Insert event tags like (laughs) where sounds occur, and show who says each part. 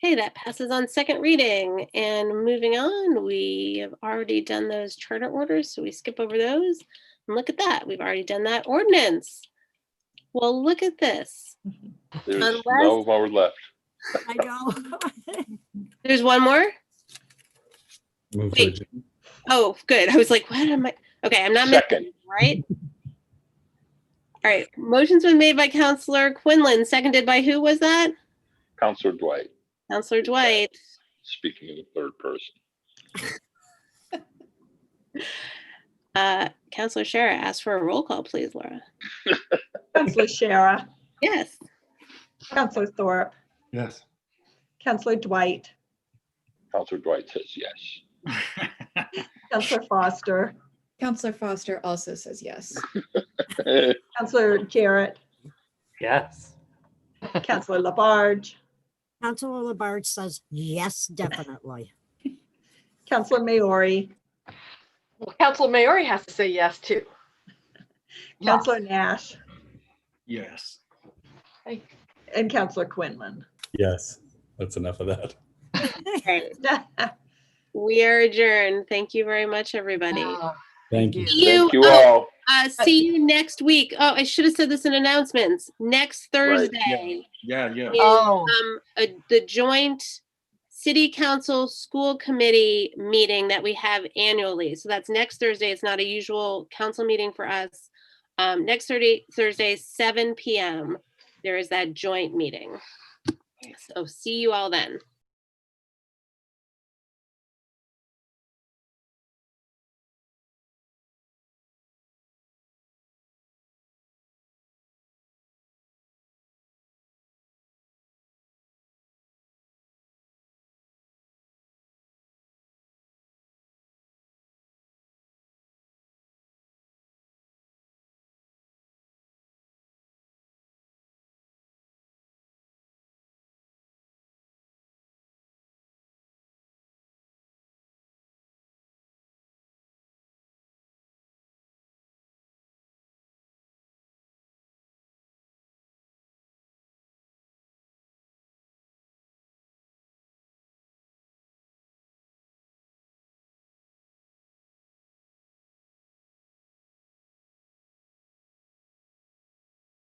Speaker 1: Okay, that passes on second reading. And moving on, we have already done those charter orders, so we skip over those. And look at that, we've already done that ordinance. Well, look at this.
Speaker 2: There's
Speaker 1: Unless-
Speaker 2: no more left.
Speaker 3: I (laughs) know.
Speaker 1: There's one more?
Speaker 4: Move
Speaker 1: Wait.
Speaker 4: to adjourn.
Speaker 1: Oh, good. I was like, what am I? Okay, I'm not missing,
Speaker 2: Second.
Speaker 1: anything, right? All right, motion's been made by Counselor Quinlan, seconded by who was that?
Speaker 2: Counselor Dwight,
Speaker 1: Counselor Dwight.
Speaker 2: speaking in the third person.
Speaker 1: Uh, Counselor Shara asked for a roll call, please, Laura.
Speaker 5: Counselor Shara,
Speaker 1: Yes.
Speaker 5: Counselor Thorpe,
Speaker 4: Yes.
Speaker 5: Counselor Dwight,
Speaker 2: Counselor Dwight says yes. (laughs)
Speaker 5: Counselor Foster,
Speaker 6: Counselor Foster also says yes.
Speaker 2: Eh,
Speaker 5: Counselor Jarrett,
Speaker 7: Yes.
Speaker 5: Counselor Labarge,
Speaker 3: Counselor Labarge says, yes, definitely.
Speaker 5: Counselor Maori,
Speaker 8: Well, Council Maori has to say yes too.
Speaker 5: Counselor Nash,
Speaker 7: Yes.
Speaker 5: and Counselor Quinlan. (laughs)
Speaker 4: Yes, that's enough of that.
Speaker 1: We are adjourned. Thank you very much, everybody.
Speaker 8: Ah.
Speaker 4: Thank you.
Speaker 1: See you,
Speaker 2: Thank you
Speaker 1: oh,
Speaker 2: all.
Speaker 1: uh, see you next week. Oh, I should have said this in announcements. Next
Speaker 2: Right,
Speaker 1: Thursday,
Speaker 7: Yeah, yeah.
Speaker 8: Oh,
Speaker 1: um, a- the joint city council school committee meeting that we have annually. So that's next Thursday. It's not a usual council meeting for us. Um, next Thursday, Thursday, seven PM, there is that joint meeting. So see you all then.